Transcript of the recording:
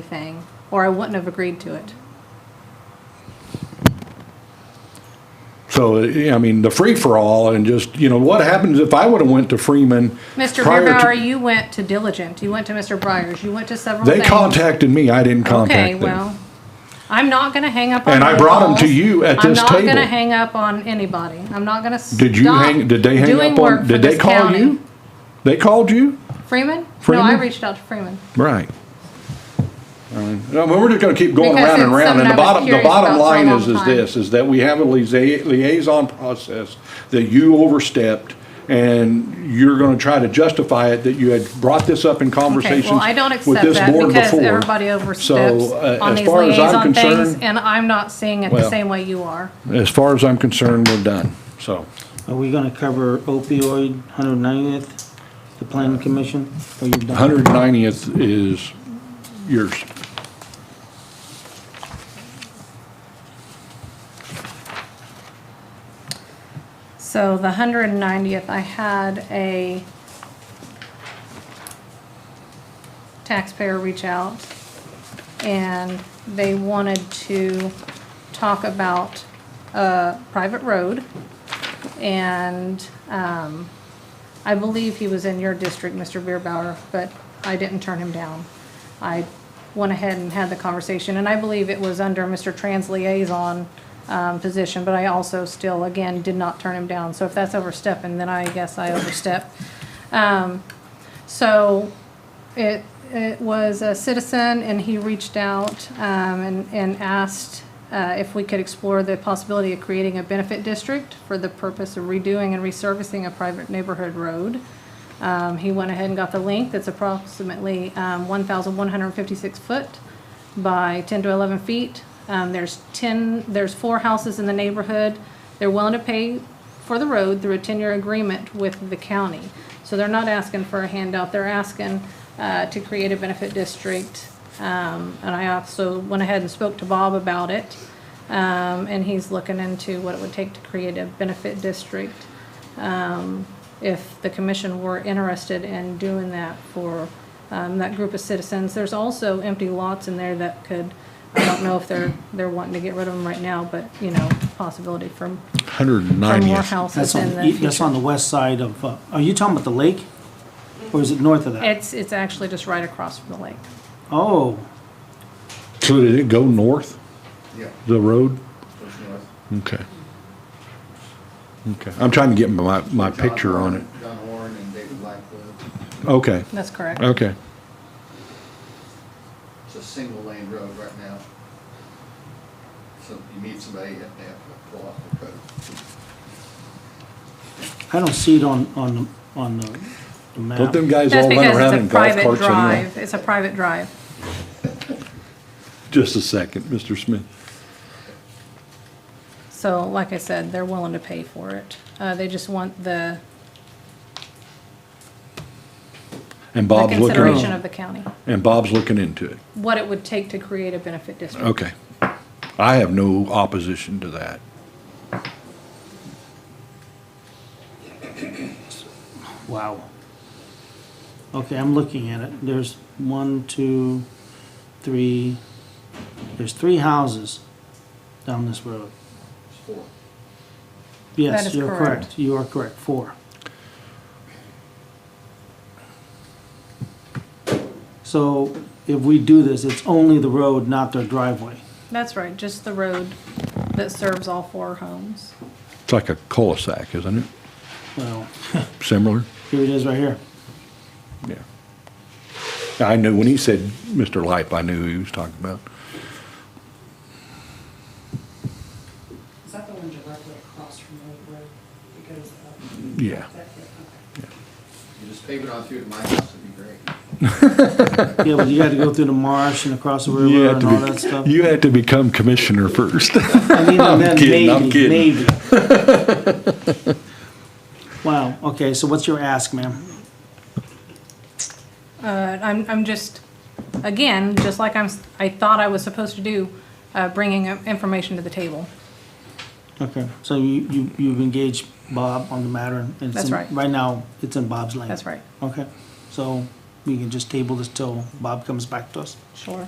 anything, or I wouldn't have agreed to it. So, I mean, the free-for-all and just, you know, what happens if I would've went to Freeman? Mr. prior to- Beerbauer, you went to Diligent, you went to Mr. Breyers, you went to several They things. contacted me, I didn't Okay, contact them. well, I'm not gonna hang up on. And I brought 'em to walls. you at this I'm not gonna table. hang up on anybody. I'm not gonna stop Did you hang, did they hang doing up work on, for did they this call county. you? They called you? Freeman? No, I Freeman? reached out to Freeman. Right. I mean, we're just gonna keep going Because around and it's around, and the something I was bottom, the curious about bottom for a line is, long is time. this, is that we have a lia- liaison process that you overstepped, and you're gonna try to justify it, that you had brought this up in Okay, conversations well, I don't with accept this that board because before. everybody So, uh, oversteps on as these far as I'm liaison things, concerned- and I'm not seeing it the Well- same way you are. As far as I'm concerned, we're done, so. Are we gonna cover opioid, 190th, the planning commission? Or you done? 190th is yours. So the hundred and ninetieth, I had a taxpayer reach out and they wanted to talk about a private road. And, um, I believe he was in your district, Mr. Beerbauer, but I didn't turn him down. I went ahead and had the conversation, and I believe it was under Mr. Trans liaison um, position, but I also still, again, did not turn him down. So if that's overstepping, then I guess I overstep. Um, So it, it was a citizen, and he reached out um, and, and asked uh, if we could explore the possibility of creating a benefit district for the purpose of redoing and resurfacing a private neighborhood road. Um, He went ahead and got the length, it's approximately um, 1,156 foot by 10 to 11 feet. Um, There's 10, there's four houses in the neighborhood. They're willing to pay for the road through a 10-year agreement with the county. So they're not asking for a handout, they're asking uh, to create a benefit district. Um, And I also went ahead and spoke to Bob about it, Um, and he's looking into what it would take to create a benefit district if the commission were interested in doing that for um, that group of citizens. There's also empty lots in there that could, I don't know if they're, they're wanting to get rid of them right now, but, you know, possibility for, for more 190th. houses That's in on, E, the that's on future. the west side of, uh, are you talking about the lake? Or is it north of that? It's, it's actually just right across from the lake. Oh, So did it go north, Yeah, the road? push north. Okay. Okay, I'm trying to get my, my picture on it. John Horn and David Blackwood. Okay, That's correct. okay. It's a single lane road right now. So if you meet somebody, you have to have to pull off the road. I don't see it on, on, the- on the the Don't map. them guys That's all run because around it's in a golf private carts anyway? drive, it's a private drive. Just a second, Mr. Smith. So like I said, they're willing to pay for it. Uh, They just want the And the Bob's looking, consideration in- of the county, and Bob's looking into it. what it would take to create a benefit district. Okay. I have no opposition to that. Wow. Okay, I'm looking at it. There's one, two, three, there's three houses down this road. It's four. Yes, is you're correct. correct. You are correct, four. So if we do this, it's only the road, not their driveway. That's right, just the road that serves all four homes. It's like a cul-de-sac, isn't it? Well, Similar? here it is right here. Yeah. I knew, when he said Mr. Lipe, I knew who he was talking about. Is that the one directly across from Lake Road? It goes up. Yeah. That- okay. You just pave it on through to my house, it'd be great. Yeah, but you got to go through the marsh and across the river and all that stuff. you had to become commissioner first. I mean, and then kidding, I'm maybe, maybe. Wow, okay, so what's your ask, ma'am? Uh, I'm, I'm just, again, just like I'm, s- I thought I was supposed to do, uh, bringing uh, information to the table. Okay, so you, you, you've engaged Bob on the matter and it's That's in- right. now, it's in Bob's lane. That's right. Okay, so we can just table this till Bob comes back to us? Sure.